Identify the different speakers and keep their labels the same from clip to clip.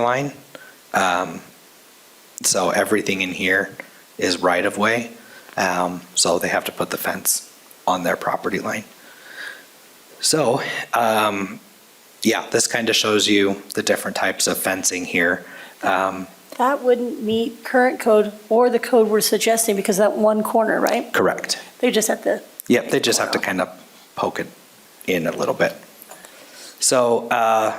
Speaker 1: line. Um, So everything in here is right-of-way, Um, so they have to put the fence on their property line. So, um, yeah, this kind of shows you the different types of fencing here. Um,
Speaker 2: That wouldn't meet current code or the code we're suggesting because that one corner, right?
Speaker 1: Correct.
Speaker 2: They just at the,
Speaker 1: Yep, they just have to kind of poke it in a little bit. So uh,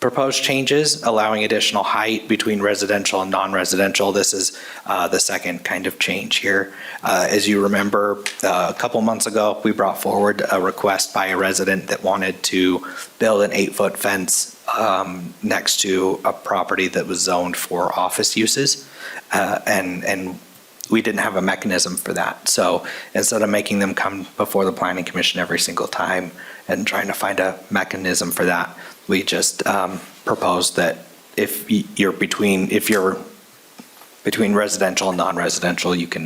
Speaker 1: proposed changes, allowing additional height between residential and non-residential. This is uh, the second kind of change here. Uh, As you remember, uh, a couple months ago, we brought forward a request by a resident that wanted to build an eight-foot fence um, next to a property that was zoned for office uses. Uh, And, and we didn't have a mechanism for that. So instead of making them come before the planning commission every single time and trying to find a mechanism for that, we just um, proposed that if y- you're between, if you're between residential and non-residential, you can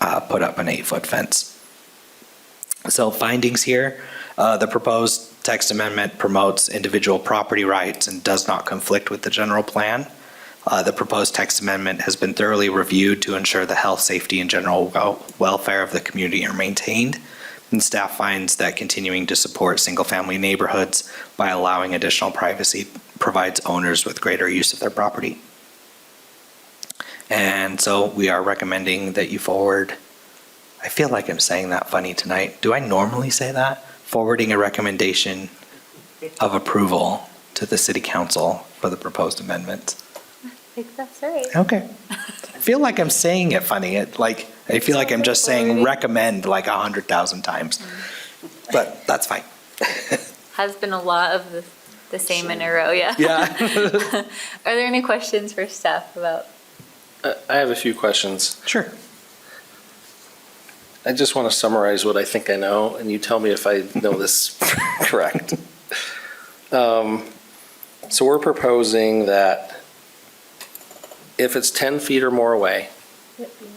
Speaker 1: uh, put up an eight-foot fence. So findings here, uh, the proposed text amendment promotes individual property rights and does not conflict with the general plan. Uh, The proposed text amendment has been thoroughly reviewed to ensure the health, safety, and general wel- welfare of the community are maintained. And staff finds that continuing to support single-family neighborhoods by allowing additional privacy provides owners with greater use of their property. And so we are recommending that you forward, I feel like I'm saying that funny tonight. Do I normally say that? Forwarding a recommendation of approval to the city council for the proposed amendment.
Speaker 3: think that's right.
Speaker 1: Okay. I feel like I'm saying it funny. It like I feel like I'm just saying recommend like a hundred thousand times, but that's fine.
Speaker 3: Has been a lot of the, the same in a row, yeah.
Speaker 1: Yeah.
Speaker 3: Are there any questions for staff about?
Speaker 4: I I have a few questions.
Speaker 1: Sure.
Speaker 4: I just want to summarize what I think I know, and you tell me if I know this correct. Um, So we're proposing that if it's 10 feet or more away,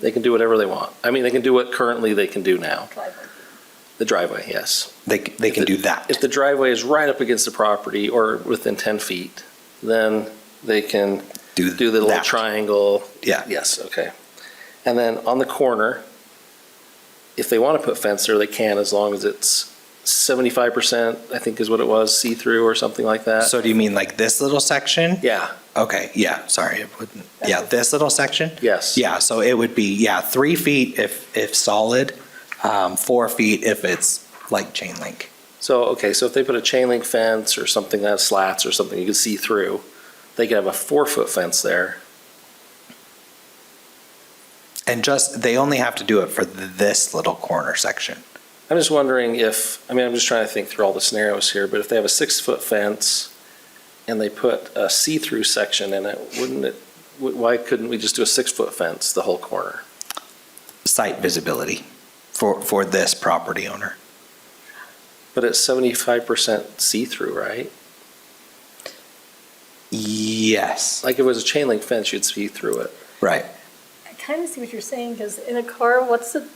Speaker 4: they can do whatever they want. I mean, they can do what currently they can do now, the driveway, yes.
Speaker 1: They c- they can do that.
Speaker 4: If the driveway is right up against the property or within 10 feet, then they can do the little
Speaker 1: that.
Speaker 4: triangle
Speaker 1: Yeah.
Speaker 4: Yes, okay. And then on the corner, if they want to put fence there, they can, as long as it's seventy-five percent, I think is what it was, see-through or something like that.
Speaker 1: So do you mean like this little section?
Speaker 4: Yeah,
Speaker 1: Okay. Yeah. Sorry. It wouldn't. Yeah. This little section.
Speaker 4: yes.
Speaker 1: Yeah. So it would be yeah three feet if if solid, um, four feet if it's like chain link.
Speaker 4: So, okay, so if they put a chain link fence or something that has slats or something you can see through, they could have a four-foot fence there.
Speaker 1: And just they only have to do it for th- this little corner section.
Speaker 4: I'm just wondering if, I mean, I'm just trying to think through all the scenarios here, but if they have a six-foot fence and they put a see-through section in it, wouldn't it, wh- why couldn't we just do a six-foot fence the whole corner?
Speaker 1: Site visibility for for this property owner.
Speaker 4: But it's seventy-five percent see-through, right?
Speaker 1: Yes.
Speaker 4: Like if it was a chain link fence, you'd see through it.
Speaker 1: Right.
Speaker 2: I kind of see what you're saying because in a car, what's the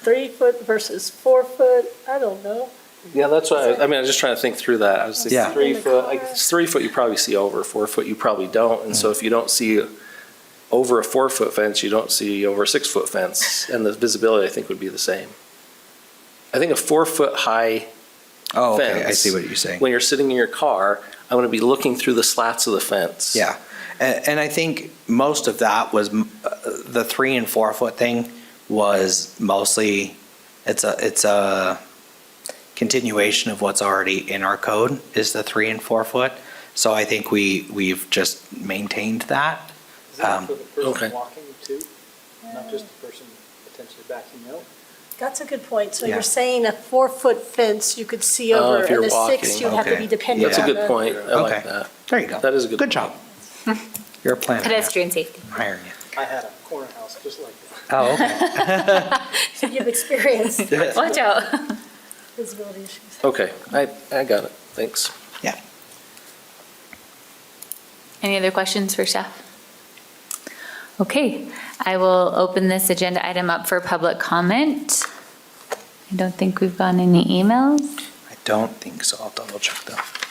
Speaker 2: three foot versus four foot? I don't know.
Speaker 4: Yeah, that's why, I mean, I was just trying to think through that. I was
Speaker 1: Yeah.
Speaker 4: thinking three foot, like, it's three foot you probably see over, four foot you probably don't. And so if you don't see over a four foot fence, you don't see over a six foot fence. And the visibility, I think, would be the same. I think a four foot high,
Speaker 1: Oh, okay. I
Speaker 4: Fence.
Speaker 1: see what you're saying.
Speaker 4: when you're sitting in your car, I'm going to be looking through the slats of the fence.
Speaker 1: Yeah. And, and I think most of that was m- uh, the three and four foot thing was mostly it's a it's a continuation of what's already in our code is the three and four foot. So I think we we've just maintained that.
Speaker 5: Is that
Speaker 1: Um,
Speaker 5: for the
Speaker 4: okay.
Speaker 5: person walking too? Not just the person potentially backing out?
Speaker 2: That's a good point. So
Speaker 1: Yeah.
Speaker 2: you're saying a four foot fence you could see
Speaker 4: Oh,
Speaker 2: over
Speaker 4: if you're
Speaker 2: and a six,
Speaker 4: walking.
Speaker 2: you have to
Speaker 1: Okay.
Speaker 2: be dependent
Speaker 4: That's a
Speaker 2: on
Speaker 4: good
Speaker 2: the.
Speaker 4: point. I like
Speaker 1: Okay.
Speaker 4: that.
Speaker 1: There you go.
Speaker 4: That is a good
Speaker 1: Good job. You're a planner. now.
Speaker 3: Pedestrian safety.
Speaker 1: I'm hiring you.
Speaker 5: I had a corner house just like that.
Speaker 1: Oh, okay.
Speaker 2: So you've experienced
Speaker 3: Watch out.
Speaker 2: visibility issues.
Speaker 4: Okay, I, I got it. Thanks.
Speaker 1: yeah.
Speaker 3: Any other questions for staff? Okay, I will open this agenda item up for public comment. I don't think we've gotten any emails.
Speaker 1: I don't think so. I'll double check though.